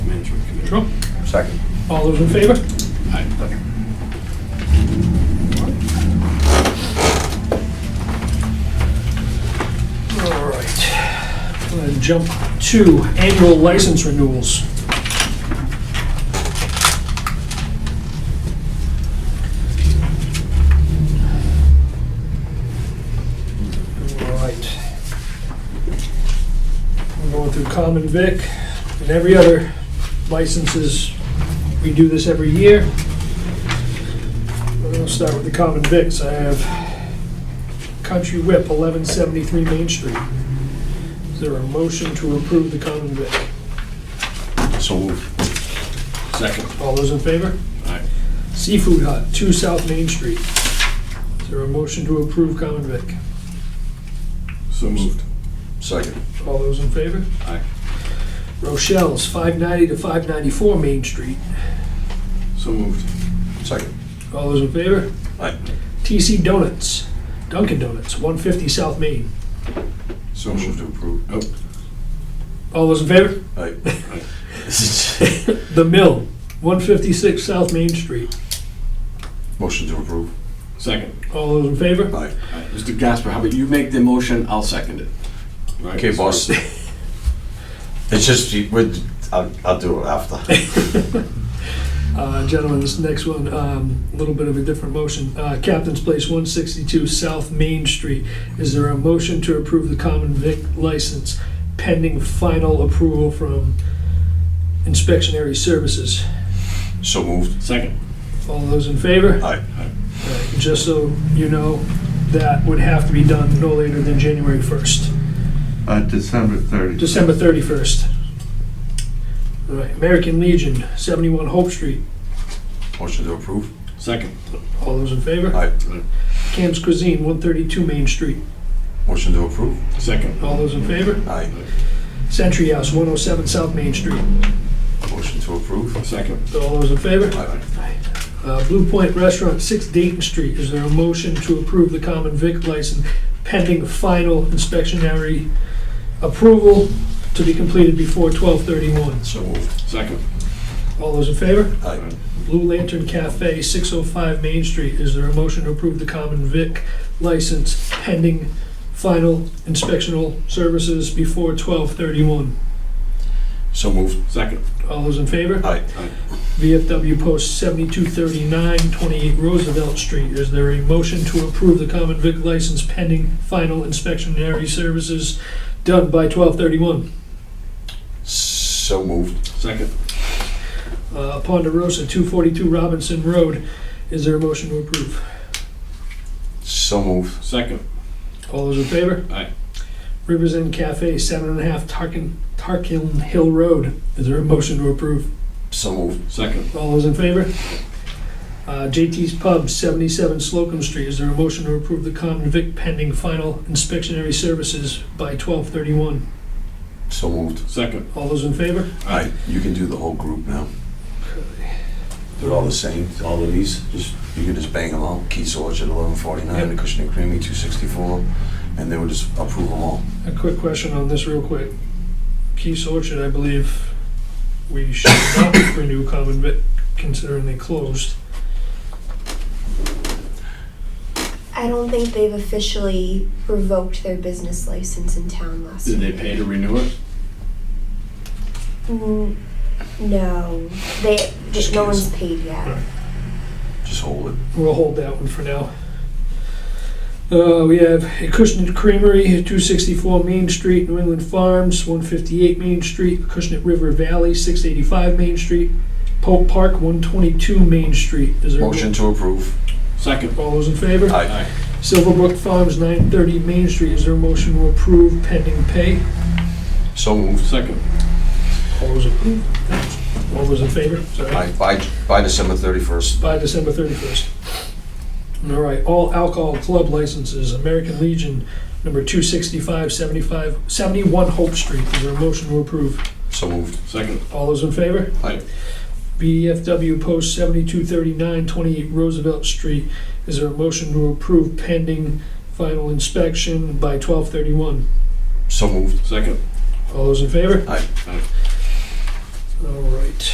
Sure. Second. All those in favor? All right. I'm gonna Jump to annual license renewals. All right. We're going through common vic and every other licenses. We do this every year. We'll start with the common vics. I have Country Whip, 1173 Main Street. Is there a motion to approve the common vic? So moved. Second. All those in favor? Aye. Seafood Hut, 2 South Main Street. Is there a motion to approve common vic? So moved. Second. All those in favor? Aye. Rochelle's, 590 to 594 Main Street. So moved. Second. All those in favor? Aye. TC Donuts, Dunkin' Donuts, 150 South Main. So Motion moved. to approve. Oh, All those in favor? Aye. The Mill, 156 South Main Street. Motion to approve. second. All those in favor? Aye. Aye. Mr. Gasper, how about you make the motion, I'll second it. Right, Okay, Mr. boss. It's just, you- we're- I'll, I'll do it after. Uh, Gentlemen, this next one, um, a little bit of a different motion. Uh, Captain's Place, 162 South Main Street. Is there a motion to approve the common vic license pending final approval from inspectionary services? So moved. Second. All those in favor? Aye. Right, Just so you know, that would have to be done no later than January 1st, Uh, December 30th. December 31st. All right, American Legion, 71 Hope Street. Motion to approve. Second. All those in favor? Aye. Cam's Cuisine, 132 Main Street. Motion to approve. Second. All those in favor? Aye. Century House, 107 South Main Street. Motion to approve. Second. All those in favor? Aye. Uh, Blue Point Restaurant, 6 Dayton Street. Is there a motion to approve the common vic license pending final inspectionary approval to be completed before 12/31? So moved. Second. All those in favor? Aye. Blue Lantern Cafe, 605 Main Street. Is there a motion to approve the common vic license pending final inspectional services before 12/31? So moved. Second. All those in favor? Aye. VFW Post 7239, 28 Roosevelt Street. Is there a motion to approve the common vic license pending final inspectionary services done by 12/31? So moved. Second. Uh, Ponderosa, 242 Robinson Road. Is there a motion to approve? So moved. Second. All those in favor? Aye. Rivers End Cafe, seven and a half Tarkin, Tarkin Hill Road. Is there a motion to approve? So moved. Second. All those in favor? Uh, JT's Pub, 77 Slocum Street. Is there a motion to approve the common vic pending final inspectionary services by 12:31? So moved. Second. All those in favor? Aye. You can do the whole group now. They're all the same, all of these, just, you can just bang them out, Keith's Orchard, eleven forty-nine, the Cushing and Creamy, two sixty-four, and they would just approve them all. A quick question on this real quick. Keith's Orchard, I believe we should not renew common vic considering they closed. I don't think they've officially revoked their business license in town last Did year. they pay to renew it? Mm, no, they. Just no kids. one's paid yet. Right. Just hold it. We'll hold that one for now. Uh, we have a Cushnet Creamery, 264 Main Street, New England Farms, 158 Main Street, Cushnet River Valley, 685 Main Street, Pope Park, 122 Main Street. Is there a mo- Motion to approve. Second. All those in favor? Aye. Silverbrook Farms, 930 Main Street. Is there a motion to approve pending pay? So moved. Second. All those approved? All those in favor? Sorry. Aye, by, by December thirty-first. by December 31st. All right, all alcohol club licenses, American Legion, number 265, 75, 71 Hope Street. Is there a motion to approve? So moved. Second. All those in favor? Aye. BFW Post 7239, 28 Roosevelt Street. Is there a motion to approve pending final inspection by 1231? So moved. Second. All those in favor? Aye. All right.